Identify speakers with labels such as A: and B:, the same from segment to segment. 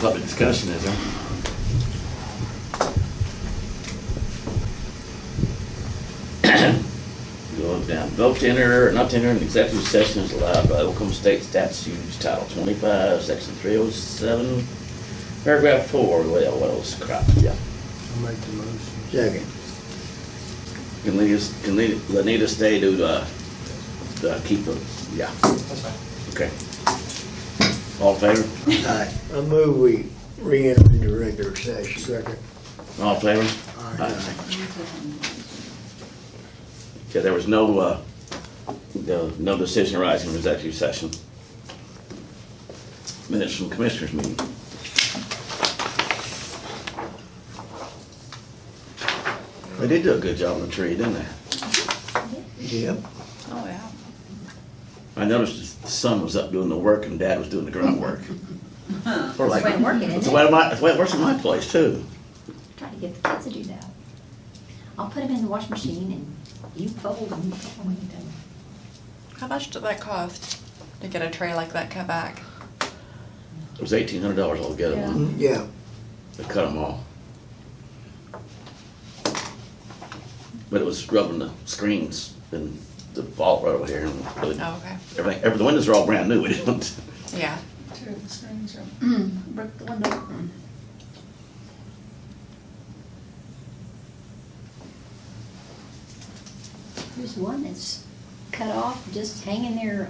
A: public discussion, is there? Go on down. Vote to enter or not to enter an executive session is allowed by Oklahoma State Statutes Title twenty-five, section three oh seven, paragraph four, well, what else crap, yeah.
B: I'll make the motion.
C: Second.
A: Can lead us, can lead, Lanita stay to, uh, uh, keep it, yeah. Okay. All in favor?
C: Aye. I move we re-enter into regular session. Second.
A: All in favor?
C: Aye.
A: Okay, there was no, uh, no, no decision arising from executive session. Minutes from commissioners meeting. They did do a good job on the tree, didn't they?
C: Yep.
D: Oh, yeah.
A: I noticed the son was up doing the work and dad was doing the groundwork. That's
E: That's the way it working, isn't
A: That's the
E: it?
A: way my, that's the way it works in my place too.
E: Try to get the kids to do that. I'll put them in the washing machine and you fold them, you fold them, you done.
D: How much did that cost to get a tray like that cut back?
A: It was eighteen hundred dollars altogether,
D: Yeah.
A: wasn't
C: Yeah.
A: it? They cut them all. But it was rubbing the screens and the vault right over here and really,
D: Oh, okay.
A: everything, every, the windows are all brand new, we didn't.
D: Yeah.
F: Two of the screens are,
E: Mm.
F: broke the window.
E: There's one that's cut off, just hanging there.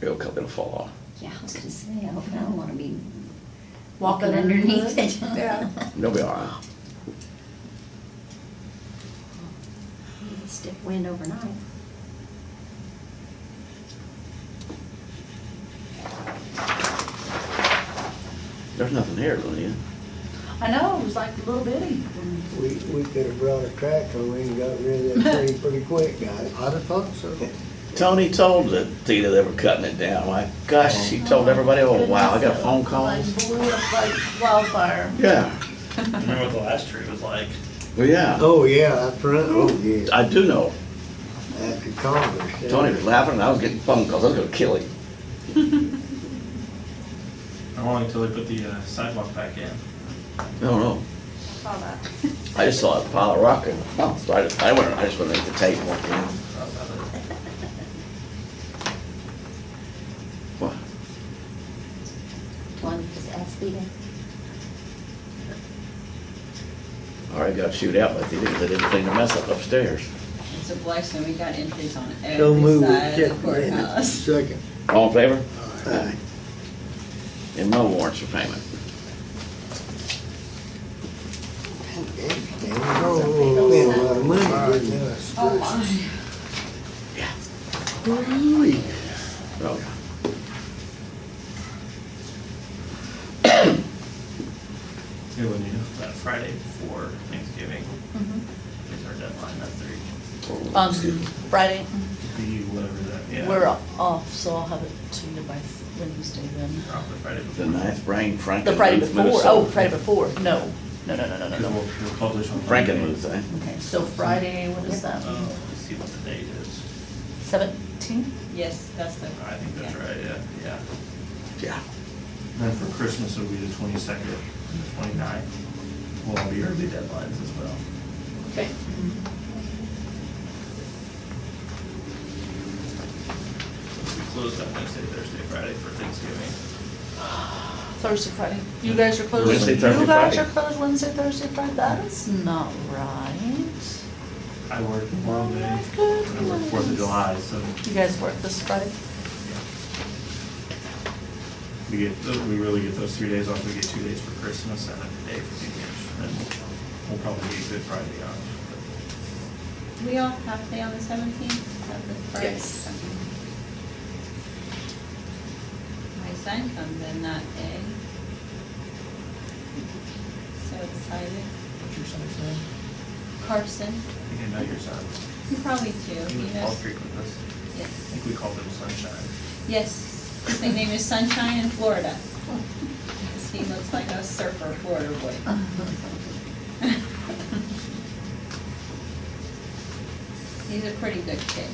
A: It'll come, it'll fall off.
E: Yeah, I was gonna say, I hope I don't wanna be
D: Walking
E: walking underneath it.
D: Yeah.
A: They'll be all right.
E: Stiff wind overnight.
A: There's nothing here, Lydia.
F: I know, it was like a little bitty.
C: We, we could have brought a tractor, we ain't got rid of that tree pretty quick, guys.
B: I'd have thought so.
A: Tony told the Tita they were cutting it down. My gosh, she told everybody, oh wow, I got phone calls.
F: They blew up like wildfire.
A: Yeah,
G: Remember what the last tree was like?
A: well, yeah.
C: Oh, yeah, up front, oh, yeah,
A: I do know.
C: after Congress. yeah.
A: Tony was laughing and I was getting phone calls. I was gonna kill him.
G: How long until they put the uh, sidewalk back in?
A: I don't know.
D: Saw that.
A: I just saw a pile of rock and, oh, so I just, I went, I just went into the tape and walked in.
G: Thought
A: Well,
G: about it.
E: One, just ask Stephen.
A: All right, got shoot out, but they didn't, they didn't clean the mess up upstairs.
H: It's a blessing, we got entries on
C: So
H: every
C: move we
H: side
C: accept
H: of the
C: the minutes.
H: courthouse.
C: Second.
A: All in favor?
C: Aye.
A: And no warrants for payment.
C: Damn, oh, spend a lot of money, didn't we?
H: Oh, my.
A: Ooh-wee. Oh, yeah.
G: It would, you know, that Friday before Thanksgiving
I: Mm-hmm.
G: is our deadline, that's three.
I: Um,
A: Excuse me.
I: Friday,
G: Be whatever that, yeah.
I: we're off, so I'll have it to you by Wednesday then.
G: Probably Friday before.
A: The ninth, Brian Franken.
I: The Friday
A: moved
I: before,
A: Minnesota.
I: oh, Friday before, no, no, no, no, no, no,
G: Because
I: no.
G: we'll, we'll publish on.
A: Franken
G: Monday.
A: moved, eh?
I: Okay, so Friday, what is that,
G: Uh, let's see what the date is.
I: seventeen?
H: Yes, that's the.
G: I think that's
H: yeah.
G: right, yeah, yeah.
A: Yeah.
G: And Then for Christmas, it'll be the twenty-second, the twenty-ninth. Will all be early deadlines as well.
I: Okay.
G: We closed on Wednesday, Thursday, Friday for Thanksgiving.
I: Thursday, Friday, you guys are closed?
A: Wednesday, Thursday,
I: You guys are
A: Friday.
I: closed Wednesday, Thursday, Friday, that is
H: Mm-hmm.
I: not right.
G: I work Memorial Day,
I: That's good.
G: and I work Fourth of July, so
I: You guys work this Friday?
G: we get, we really get those three days off, we get two days for Christmas and then a day for New Year's, and we'll probably get Good Friday off.
H: We all have to be on the seventeenth of the Friday.
I: Yes.
H: My son comes in that day. So excited.
G: What's your son's name?
H: Carson,
G: I think I know your son.
H: probably two,
G: He
H: he
G: was Wall
H: knows.
G: Street with us. I
H: Yes.
G: think we called him Sunshine.
H: Yes, his nickname is Sunshine in Florida. 'Cause He looks like a surfer Florida boy. He's a pretty good kid.